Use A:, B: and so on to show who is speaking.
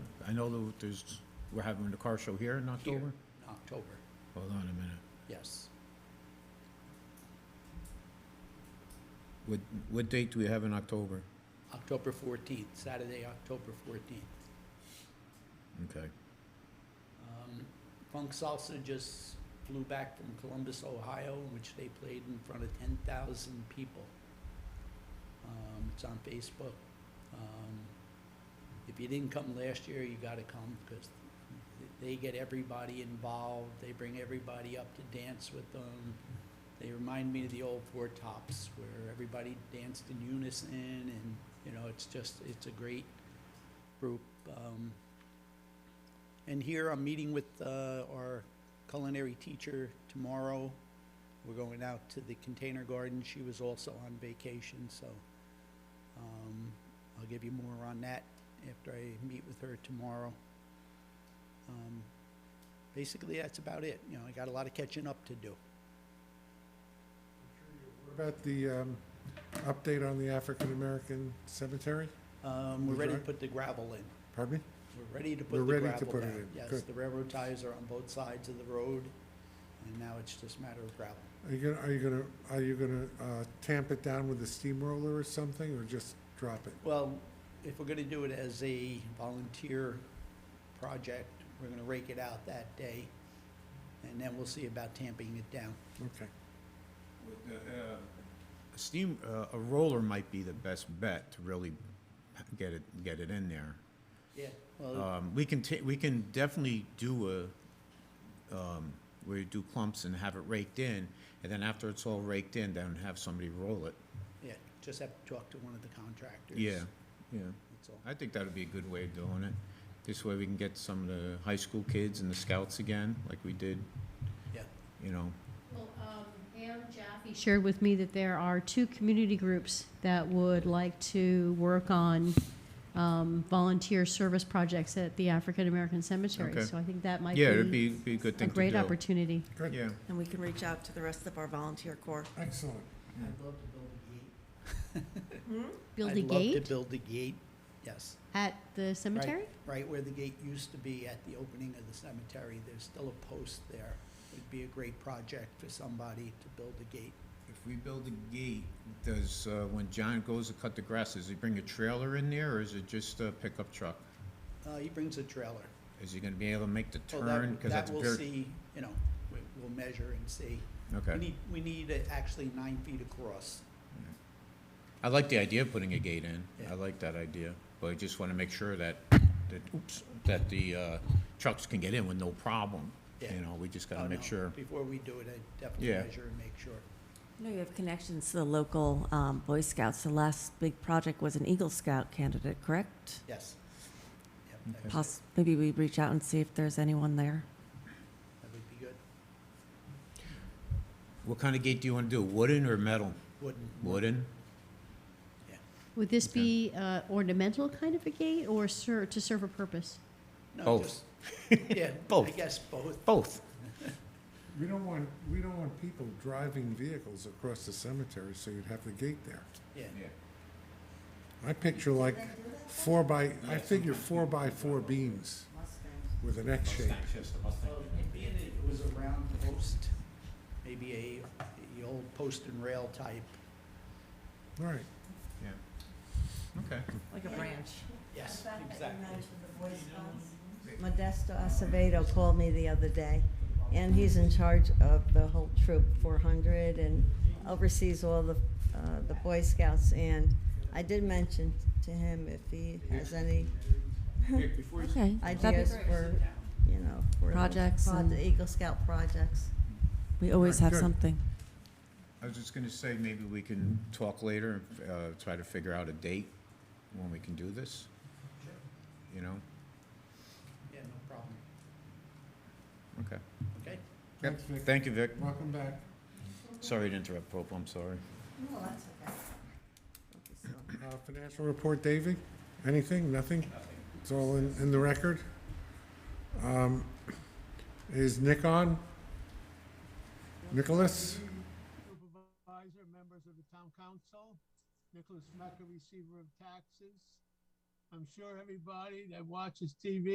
A: I know that there's, we're having the car show here in
B: Here,
A: October?
B: in October,
A: Hold on a minute.
B: yes.
A: What, what date do we have in October?
B: October 14th, Saturday, October 14th.
A: Okay.
B: Um, Funk Salsa just flew back from Columbus, Ohio, in which they played in front of 10,000 people. Um, It's on Facebook. Um, If you didn't come last year, you gotta come, because they get everybody involved, they bring everybody up to dance with them. They remind me of the old Four Tops, where everybody danced in unison, and, you know, it's just, it's a great group. Um, and here I'm meeting with uh, our culinary teacher tomorrow. We're going out to the container garden. She was also on vacation, so um, I'll give you more on that after I meet with her tomorrow. Um, Basically, that's about it. You know, I got a lot of catching up to do.
C: What About the um, update on the African-American cemetery,
B: Um, We're ready to
C: Right.
B: put the gravel in.
C: pardon me?
B: We're ready to
C: We're
B: put the
C: ready to
B: gravel
C: put it
B: down.
C: in.
B: Yes,
C: Good.
B: the railroad ties are on both sides of the road, and now it's just a matter of gravel.
C: Are you gonna, are you gonna, are you gonna uh, tamp it down with a steamroller or something, or just drop it?
B: Well, if we're gonna do it as a volunteer project, we're gonna rake it out that day, and then we'll see about tamping it down.
C: Okay.
A: A steam, uh, a roller might be the best bet to really get it, get it in there.
B: Yeah. Well,
A: Um, we can ta, we can definitely do a, um, where you do clumps and have it raked in, and then after it's all raked in, then have somebody roll it.
B: yeah, just have to talk to one of the contractors.
A: Yeah, yeah.
B: That's all.
A: I think that'd be a good way of doing it. This way we can get some of the high school kids and the scouts again, like we did.
B: Yeah.
A: You know,
D: Well, um, Pam Jaffe shared with me that there are two community groups that would like to work on um, volunteer service projects at the African American Cemetery.
A: Okay.
D: So I think that might
A: yeah, it'd
D: be,
A: be, be a good
D: a
A: thing to do.
D: great opportunity.
C: Good.
A: Yeah,
E: And we can reach out to the rest of our volunteer corps.
C: Excellent.
B: I'd love to build a gate.
D: Build
B: I'd
D: a
B: love to
D: gate
B: build a gate, yes.
D: at the
B: Right-
D: cemetery?
B: Right where the gate used to be at the opening of the cemetery, there's still a post there. It'd be a great project for somebody to build a gate.
A: if we build a gate, does, uh, when John goes to cut the grass, does he bring a trailer in there, or is it just a pickup truck?
B: Uh, he brings a trailer.
A: Is he gonna be able to make the
B: Well, that-
A: turn? 'Cause that's
B: That we'll
A: very-
B: see, you know, we- we'll measure and see. We
A: Okay.
B: need, we need uh, actually nine feet across.
A: I like the idea of putting a gate in. I
B: Yeah.
A: like that idea, but I just wanna make sure that, that, oops, that the, uh, trucks can get in with no problem.
B: Yeah.
A: You know, we just
B: Oh,
A: gotta make
B: no,
A: sure.
B: Before we do it, I definitely
A: Yeah.
B: measure and make sure.
E: No, you have connections to the local um, Boy Scouts. The last big project was an Eagle Scout candidate, correct?
B: Yes. Yep, that-
E: Poss- Maybe we reach out and see if there's anyone there.
B: That would be good.
A: What kind of gate do you wanna do, wooden or metal?
B: Wooden.
A: Wooden?
D: Would this
A: Okay.
D: be uh, ornamental kind of a gate or ser- to serve a purpose?
B: No,
A: Both.
B: just- Yeah, I
A: Both.
B: guess both.
A: Both.
C: We don't want, we don't want people driving vehicles across the cemetery, so you'd have the gate there.
B: Yeah,
C: I picture like four by, I figure four by four beams with an X shape.
B: Well, Being it was a round post, maybe a, the old post and rail type,
C: All right.
A: Yeah. Okay.
F: Like a branch.
B: yes,
F: The fact that you
B: exactly.
F: mentioned the Boy Scouts, Modesto Acevedo called me the other day, and he's in charge of the whole troop, 400, and oversees all the, uh, the Boy Scouts. And I did mention to him if he has any
E: Okay. that'd
F: ideas
E: be-
F: for, you know, for the
E: Projects
F: proj-
E: and-
F: the Eagle Scout projects.
E: We
C: Alright,
E: always have
C: good.
E: something.
A: I was just gonna say, maybe we can talk later, uh, try to figure out a date when we can do this. You know,
B: Yeah, no problem.
A: okay.
B: Okay?
C: Thanks, Vic.
A: Thank you, Vic.
C: Welcome back.
A: Sorry to interrupt, Pope, I'm sorry.
F: No, that's okay.
C: Uh, Financial report, Davy? Anything? Nothing? It's all in, in the record? Um, Is Nick on? Nicholas?
G: Supervisor, members of the town council, Nicholas Mecca, receiver of taxes. I'm sure everybody that watches TV